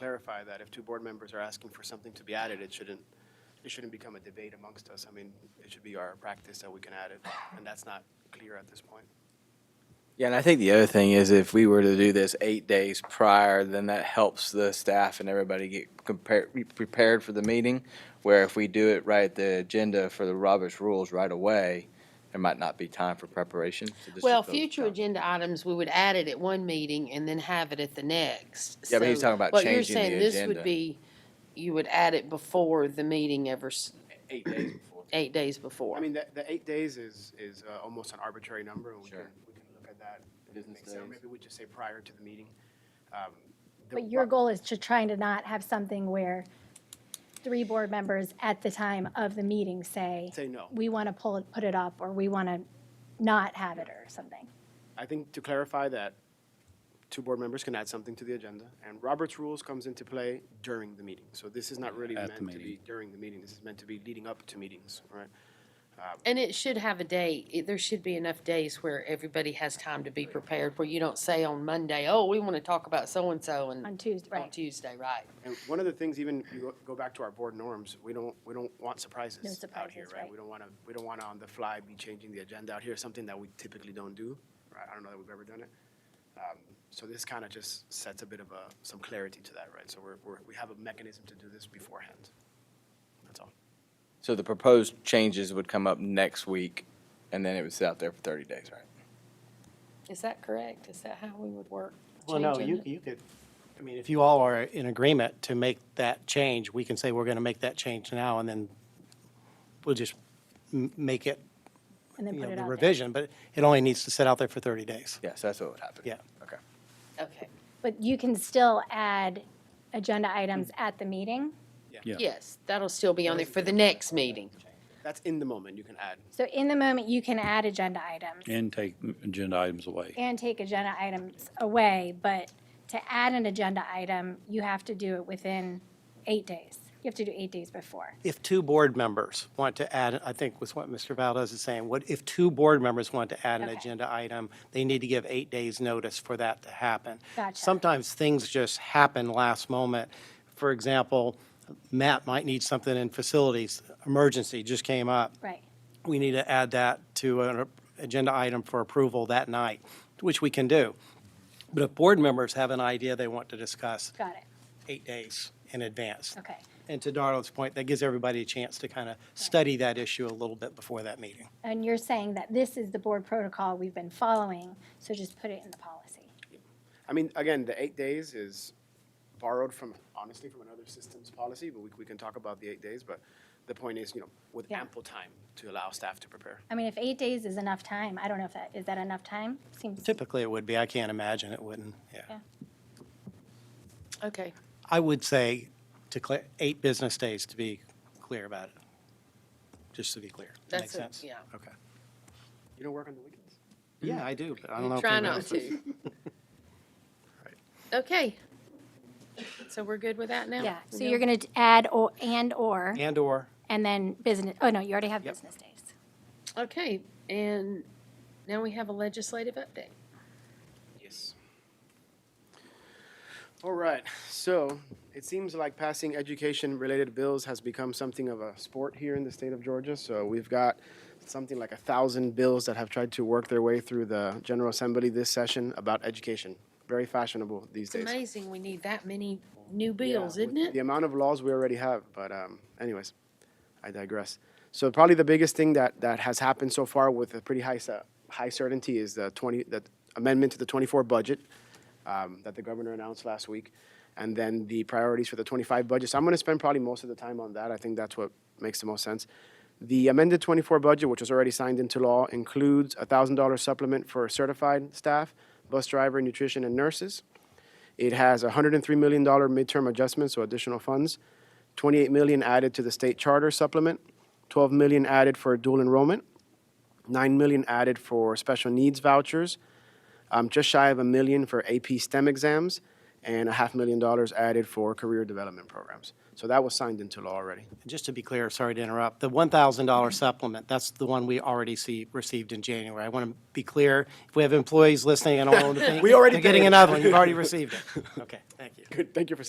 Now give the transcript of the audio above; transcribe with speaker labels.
Speaker 1: clarify that if two board members are asking for something to be added, it shouldn't, it shouldn't become a debate amongst us. I mean, it should be our practice that we can add it, and that's not clear at this point.
Speaker 2: Yeah, and I think the other thing is if we were to do this eight days prior, then that helps the staff and everybody get compared, prepared for the meeting. Where if we do it right, the agenda for the Roberts rules right away, there might not be time for preparation. So this
Speaker 3: Well,
Speaker 2: just builds
Speaker 3: future
Speaker 2: time.
Speaker 3: agenda items, we would add it at one meeting and then have it at the next.
Speaker 2: Yeah, but he's
Speaker 3: So
Speaker 2: talking about
Speaker 3: what you're
Speaker 2: changing the
Speaker 3: saying, this
Speaker 2: agenda.
Speaker 3: would be, You would add it before the meeting ever, s-
Speaker 2: Eight days before.
Speaker 3: eight days before.
Speaker 1: I mean, the, the eight days is, is uh, almost an arbitrary number, and we can,
Speaker 2: Sure.
Speaker 1: we can look at that. if it
Speaker 2: Business
Speaker 1: makes sense. Or
Speaker 2: days.
Speaker 1: Maybe we just say prior to the meeting. Um, the-
Speaker 4: But your goal is to trying to not have something where three board members at the time of the meeting say,
Speaker 1: Say no.
Speaker 4: we want to pull it, put it up, or we want to not have it, or something.
Speaker 1: I think to clarify that, two board members can add something to the agenda, and Robert's rules comes into play during the meeting. So this is not really
Speaker 5: At the
Speaker 1: meant to be
Speaker 5: meeting.
Speaker 1: during the meeting, this is meant to be leading up to meetings, right?
Speaker 3: And it should have a date. It- There should be enough days where everybody has time to be prepared, where you don't say on Monday, oh, we want to talk about so-and-so and.
Speaker 4: On Tuesday,
Speaker 3: On
Speaker 4: right.
Speaker 3: Tuesday, right.
Speaker 1: And one of the things, even if you go- go back to our board norms, we don't, we don't want
Speaker 4: No
Speaker 1: surprises out here,
Speaker 4: surprises,
Speaker 1: right?
Speaker 4: right.
Speaker 1: We don't want to, we don't want to on the fly be changing the agenda out here, something that we typically don't do. right? I don't know that we've ever done it. Um, So this kind of just sets a bit of a, some clarity to that, right? So we're, we're, we have a mechanism to do this beforehand. That's all.
Speaker 2: So the proposed changes would come up next week, and then it would sit out there for thirty days, right?
Speaker 3: Is that correct? Is that how we would work?
Speaker 6: Well, no,
Speaker 3: changing
Speaker 6: you,
Speaker 3: it?
Speaker 6: you could, I mean, if you all are in agreement to make that change, we can say we're going to make that change now, and then we'll just m- make it,
Speaker 4: And then
Speaker 6: you
Speaker 4: put
Speaker 6: know,
Speaker 4: it
Speaker 6: the
Speaker 4: out there.
Speaker 6: revision, but it only needs to sit out there for 30 days.
Speaker 2: Yes, that's what would happen.
Speaker 6: Yeah.
Speaker 2: Okay.
Speaker 3: Okay,
Speaker 4: But you can still add agenda items at the meeting.
Speaker 3: yes, that'll still be on there for the next meeting.
Speaker 1: That's in the moment, you can add.
Speaker 4: So in the moment, you can add agenda items
Speaker 5: And take agenda items away.
Speaker 4: and take agenda items away, but to add an agenda item, you have to do it within eight days. You have to do eight days before.
Speaker 6: If two board members want to add, I think was what Mr. Valdez is saying, what, if two board members want to add an
Speaker 4: Okay.
Speaker 6: agenda item, they need to give eight days' notice for that to happen.
Speaker 4: Gotcha.
Speaker 6: Sometimes things just happen last moment. For example, Matt might need something in facilities, emergency just came up.
Speaker 4: Right.
Speaker 6: we need to add that to an agenda item for approval that night, which we can do. But if board members have an idea they want to discuss,
Speaker 4: Got it.
Speaker 6: eight days in advance.
Speaker 4: Okay.
Speaker 6: And to Darla's point, that gives everybody a chance to kind of study that issue a little bit before that meeting.
Speaker 4: And you're saying that this is the board protocol we've been following, so just put it in the policy.
Speaker 1: I mean, again, the eight days is borrowed from, honestly, from another systems policy, but we, we can talk about the eight days, but the point is, you know, with
Speaker 4: Yeah.
Speaker 1: ample time to allow staff to prepare.
Speaker 4: I mean, if eight days is enough time, I don't know if that, is that enough time? Seems,
Speaker 6: Typically, it would be. I can't imagine it wouldn't, yeah.
Speaker 4: Yeah.
Speaker 3: Okay,
Speaker 6: I would say to clear, eight business days to be clear about it, just to be clear. That Makes
Speaker 3: That's it,
Speaker 6: sense?
Speaker 3: yeah.
Speaker 6: Okay.
Speaker 1: You don't work on the weekends?
Speaker 6: Yeah, I do, but I don't know. if
Speaker 3: try
Speaker 6: anybody
Speaker 3: not
Speaker 6: else does.
Speaker 3: to. Okay. So we're good with that now?
Speaker 4: yeah, so
Speaker 3: Neil?
Speaker 4: you're gonna add or, and/or,
Speaker 6: And/or
Speaker 4: and then business, oh, no, you already have
Speaker 6: Yep.
Speaker 4: business days.
Speaker 3: Okay, and now we have a legislative update.
Speaker 1: Yes. All right, so it seems like passing education-related bills has become something of a sport here in the state of Georgia. So we've got something like a thousand bills that have tried to work their way through the General Assembly this session about education. Very fashionable these
Speaker 3: It's
Speaker 1: days.
Speaker 3: amazing we need that many new
Speaker 1: Yeah,
Speaker 3: bills,
Speaker 1: with
Speaker 3: isn't it?
Speaker 1: The amount of laws we already have, but um, anyways, I digress. So probably the biggest thing that, that has happened so far with a pretty high, cer- high certainty is the 20, the amendment to the 24 budget um, that the governor announced last week, and then the priorities for the 25 budget. So I'm going to spend probably most of the time on that. I think that's what makes the most sense. The amended 24 budget, which was already signed into law, includes a $1,000 supplement for certified staff, bus driver, nutrition, and nurses. It has a $103 million midterm adjustment, so additional funds, $28 million added to the state charter supplement, $12 million added for dual enrollment, $9 million added for special needs vouchers, um, just shy of a million for AP STEM exams, and a half million dollars added for career development programs. So that was signed into law already.
Speaker 6: Just to be clear, sorry to interrupt, the $1,000 supplement, that's the one we already see, received in January. I want to be clear, if we have employees listening, I don't want them to think.
Speaker 1: We already
Speaker 6: They're getting
Speaker 1: did.
Speaker 6: another one, you've already received it. Okay, thank you.
Speaker 1: Good, thank you for